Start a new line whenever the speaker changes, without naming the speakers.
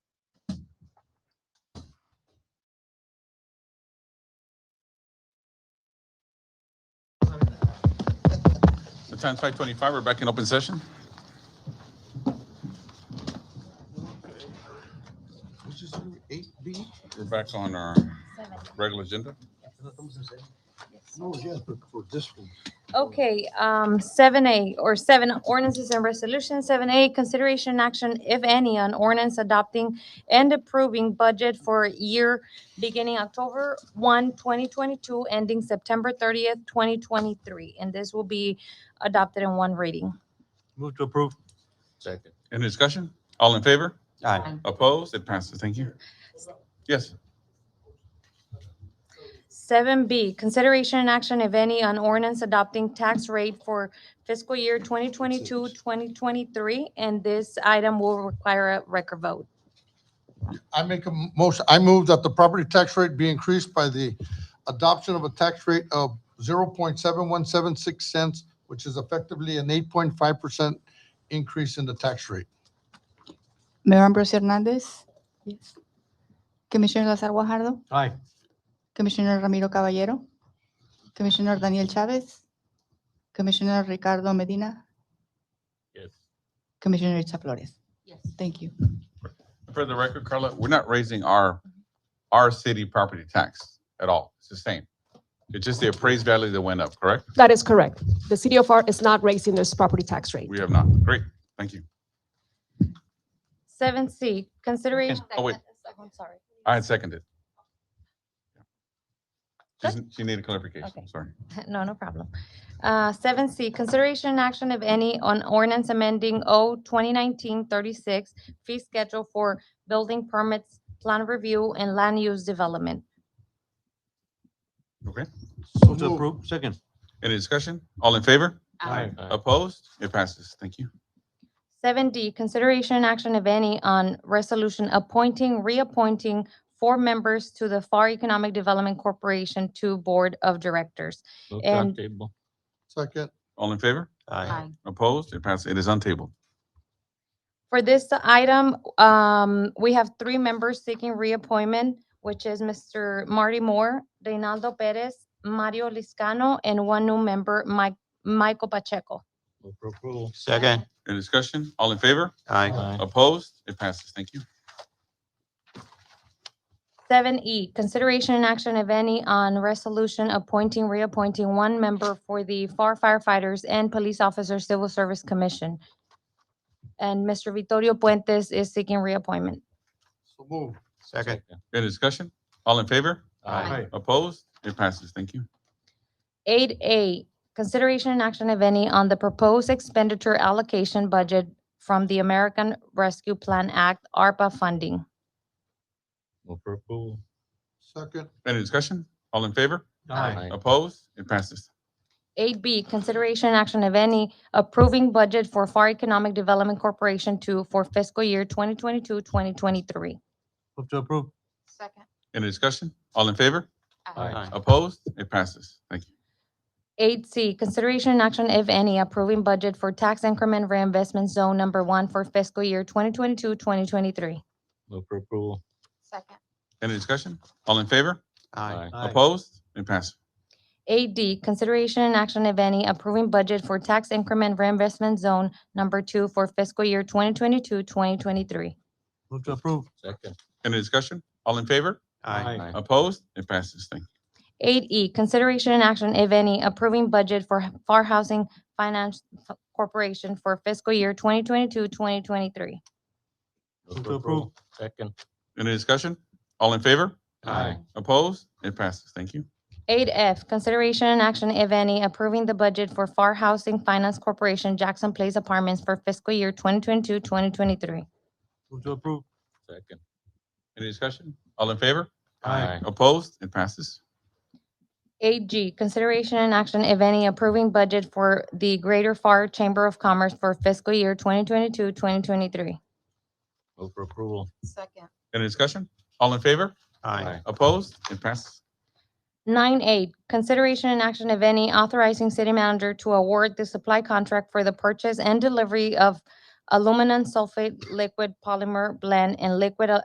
time's five twenty-five, we're back in open session.
Which is number eight B?
We're back on our
Seven,
regular agenda.
yes.
No, yes, but for this one.
Okay, um, seven A or seven ordinances and resolutions. Seven A, consideration and action, if any, on ordinance adopting and approving budget for year beginning October 1, 2022, ending September thirtieth, twenty twenty-three. And this will be adopted in one reading.
Move to approve.
Second.
Any discussion? All in favor?
Aye.
Opposed? It passes. Thank you. Yes,
Seven B, consideration and action, if any, on ordinance adopting tax rate for fiscal year 2022-2023, And this item will require a record vote.
I make a motion, I move that the property tax rate be increased by the adoption of a tax rate of zero point seven one seven six cents, which is effectively an eight point five percent increase in the tax rate.
Mayor Ambrosio Hernández. Yes. Commissioner Lazar Guajardo.
Aye.
Commissioner Ramiro Caballero. Commissioner Daniel Chávez. Commissioner Ricardo Medina.
Yes.
Commissioner Richard Flores.
Yes.
Thank you.
for the record, Carla, we're not raising our, our city property tax at all. It's the same. It's just the appraised value that went up, correct?
That is correct. The city of FAR is not raising this property tax rate.
We have not. Great, thank you.
Seven C, consideration.
Oh, wait.
I'm sorry.
I had seconded.
Good.
She's- She needed clarification,
Okay.
sorry.
No, no problem. Uh, seven C, consideration and action, if any, on ordinance amending O 2019-36 fee schedule for building permits, plan review, and land use development.
Okay,
So
Move to
moved.
approve. Second.
any discussion? All in favor?
Aye.
Opposed? It passes. Thank you.
Seven D, consideration and action, if any, on resolution appointing, reappointing four members to the FAR Economic Development Corporation Two Board of Directors. And
Second,
All in favor?
Aye.
Opposed? It passes. It is untabled.
For this item, um, we have three members seeking reappointment, which is Mr. Marty Moore, Reynaldo Perez, Mario Liscano, and one new member, Mike, Michael Pacheco.
Move to approve. Second.
Any discussion? All in favor?
Aye.
Opposed? It passes. Thank you.
Seven E, consideration and action, if any, on resolution appointing, reappointing one member for the FAR firefighters and police officer civil service commission. And Mr. Vittorio Puentes is seeking reappointment.
so move.
Second.
Any discussion? All in favor?
Aye.
Opposed? It passes. Thank you.
Eight A, consideration and action, if any, on the proposed expenditure allocation budget from the American Rescue Plan Act ARPA funding.
Move to approve.
Second,
Any discussion? All in favor?
Aye.
Opposed? It passes.
Eight B, consideration and action, if any, approving budget for FAR Economic Development Corporation Two for fiscal year 2022-2023.
Move to approve.
Second.
Any discussion? All in favor?
Aye.
Opposed? It passes. Thank you.
Eight C, consideration and action, if any, approving budget for tax increment reinvestment zone number one for fiscal year 2022-2023.
Move to approve.
Second.
Any discussion? All in favor?
Aye.
Opposed? It passes.
8D, consideration and action, if any, approving budget for tax increment reinvestment zone number two for fiscal year 2022, 2023.
Move to approve. Second.
Any discussion? All in favor?
Aye.
Opposed? It passes. Thank you.
8E, E, consideration and action, if any, approving budget for FAR Housing Finance F- Corporation for fiscal year 2022, 2023.
Move to approve. Second.
Any discussion? All in favor?
Aye.
Opposed? It passes. Thank you.
8F, consideration and action, if any, approving the budget for FAR Housing Finance Corporation Jackson Place Apartments for fiscal year 2022, 2023.
Move to approve. Second.
Any discussion? All in favor?
Aye.
Opposed? It passes.
8G, consideration and action, if any, approving budget for the Greater FAR Chamber of Commerce for fiscal year 2022, 2023.
Move for approval.
Second.
Any discussion? All in favor?
Aye.
Opposed? It passes.
9H, consideration and action, if any, authorizing city manager to award the supply contract for the purchase and delivery of aluminum sulfate liquid polymer blend and liquid a-